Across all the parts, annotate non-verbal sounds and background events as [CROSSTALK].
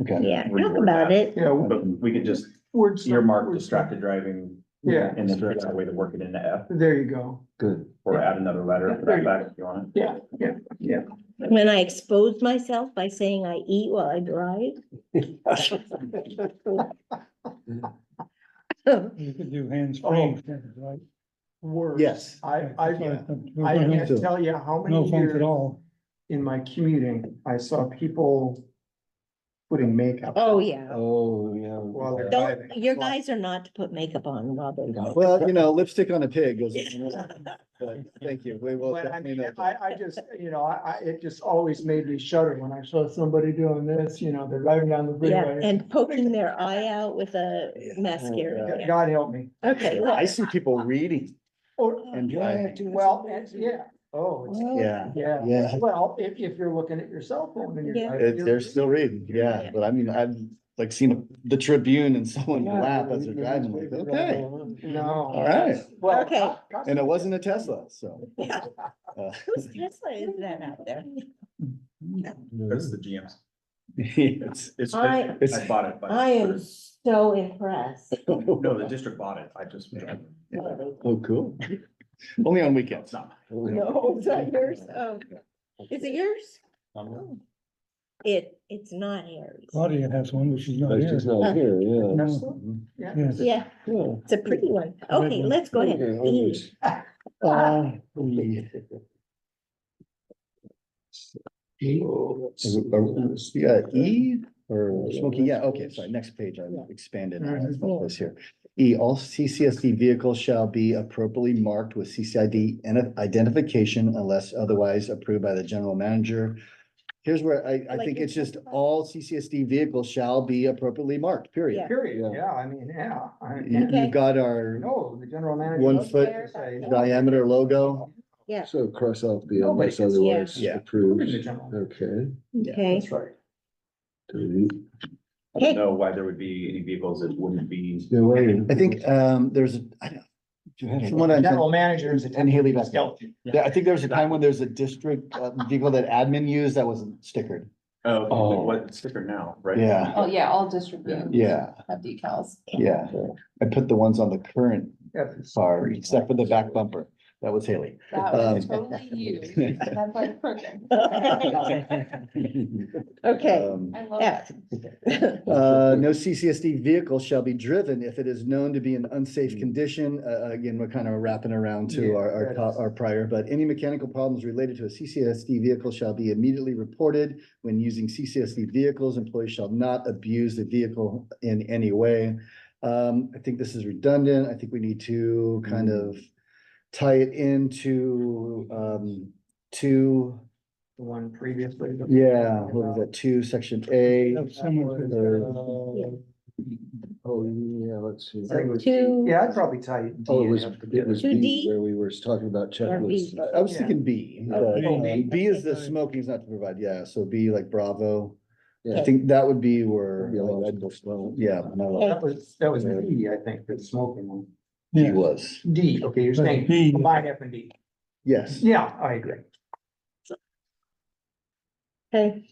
Okay. Yeah, talk reword about that. it. Yeah, w- But we could just words. earmark distracted driving Yeah, and then figure out a way to work it into F there you go. Good. [LAUGHS] or add another letter for There that you back if you want. Yeah, yeah, yeah. When I expose myself by saying I eat while I [LAUGHS] drive. You could do hands Oh. free, right? Words. Yes. I, I, I No can't phones- tell you No how many phones at years all. in my commuting, I saw people putting makeup. Oh, yeah. Oh, yeah. Well, Okay. Don't, Driving. your guys are not to put makeup on while they go. Well, you know, lipstick on a pig goes. [LAUGHS] But Thank you. We will. But I definitely mean, note that. I, I just, you know, I, I, it just always made me shudder when I saw somebody doing this, you know, they're driving down the Yeah, freeway. and poking their eye out with a mascara. God- Yeah. God help me. Okay, well, I see people reading Or, and driving. well, it's- yeah, oh, it's- Yeah, yeah. yeah. Well, if, if you're looking at your cell phone and Yeah. you're. It- driving, They're still reading. Yeah, but I mean, I've like seen the Tribune and someone laugh as they're driving like, okay. No. All right. Well, uh, Okay. God- God- And it wasn't a Tesla, so. yeah. [LAUGHS] uh, [LAUGHS] Whose Tesla is that out there? That's the GM's. it's- It's, it's, I- I bought it. by- I am so [LAUGHS] impressed. No, the district bought it. I just. [LAUGHS] Oh, [LAUGHS] cool. Only on It's weekends. not mine. No, it's not yours. Oh, is it yours? Oh, It, it's not yours. Claudia has one, but she's not here. not here, yeah. That's- Yeah. Yes. Yeah, it's a pretty one. Okay, let's go ahead. E. Uh, we- oh, Yeah, E or smoking, yeah, okay, sorry, next page, I expanded, I was not close here. E, all CCSD vehicles shall be appropriately marked with CCID and identification unless otherwise approved by the general manager. Here's where I, I Like think in it's just 25. all CCSD vehicles shall be appropriately marked, period. Period, yeah, I mean, yeah, I You- mean, Okay. You've got our no, the general manager. One doesn't foot have to say- diameter logo. Yeah. So cross off the Nobody unless can see otherwise Yeah. The approved. general- Okay. Okay, That's right. delete. I don't know why there would be any vehicles that wouldn't be. No way. I think, um, there's, a- I don't. from what I General understand- manager is a. And Haley back there. Stealthy. Yeah, I think there was a time when there was a district uh, vehicle that admin used that wasn't stickered. Oh, Oh. but what sticker now, right? Yeah. Oh, yeah, all district Yeah. vehicles Yeah, have decals. yeah. I put the ones on the current Yeah. car, except for the back bumper. That was Haley. That was Um, totally [LAUGHS] you. That's like perfect. okay. Um, I love F. that. Uh, no CCSD vehicle shall be driven if it is known to be in unsafe condition. Uh, again, we're kind of wrapping around to Hmm. Yeah, our, our, that co- is- our prior, but any mechanical problems related to a CCSD vehicle shall be immediately reported. When using CCSD vehicles, employees shall not abuse the vehicle in any way. Um, I think this is redundant. I think we need to kind Hmm. of tie it into, um, two, The one previously. that we were yeah, talking what was about. that, two, section A. Have someone for or- Uh, Oh, yeah, let's see. I think it was- Two. Yeah, I'd probably tell you. Oh, it was, it was Two D? B where we were talking about checklists. I I was thinking B. but, Okay. um, B. B is the Okay. smoking is not to provide, yeah, so B like Bravo. I Yeah. think that would be where, Yeah, like, I'd go slow. yeah, no, That was, that was D, I think, for the smoking one. he Yeah. was, D, okay, you're But D- saying combine F and D. yes. Yeah, I agree. Okay.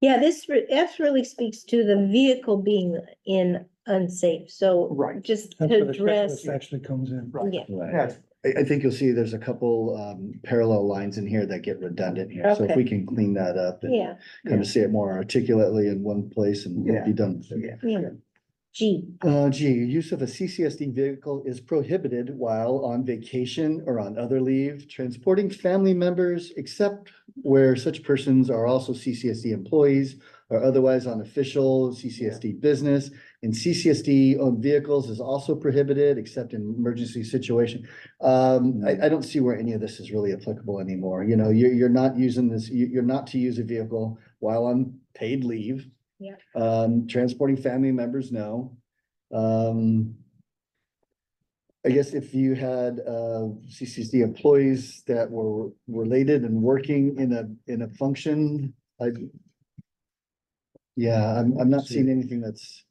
Yeah, this re- F really speaks to the vehicle being in unsafe, so Right. just That's where to the address, checklist actually comes in. Right. yeah, Right. Yes, I, I think you'll see there's a couple, um, parallel lines in here that get redundant here, so if Okay. we can clean that up and yeah, kind of see it more articulately in one place and we'll be done with it. yeah. yeah. G, Uh, G, use of a CCSD vehicle is prohibited while on vacation or on other leave, transporting family members, except where such persons are also CCSD employees or otherwise on official CCSD business. And CCSD owned vehicles is also prohibited, except in emergency situation. Um, I, I don't see where any of this is really applicable anymore. You know, you're, you're not using this, you, you're not to use a vehicle while on paid leave. Yeah. Um, transporting family members, no. Um. I guess if you had uh CCSD employees that were related and working in a, in a function, I. Yeah, I'm, I'm not seeing anything that's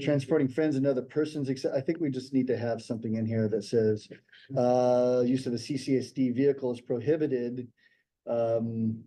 transporting friends and other persons, except I think we just need to have something in here that says. Uh, use of a CCSD vehicle is prohibited. Um,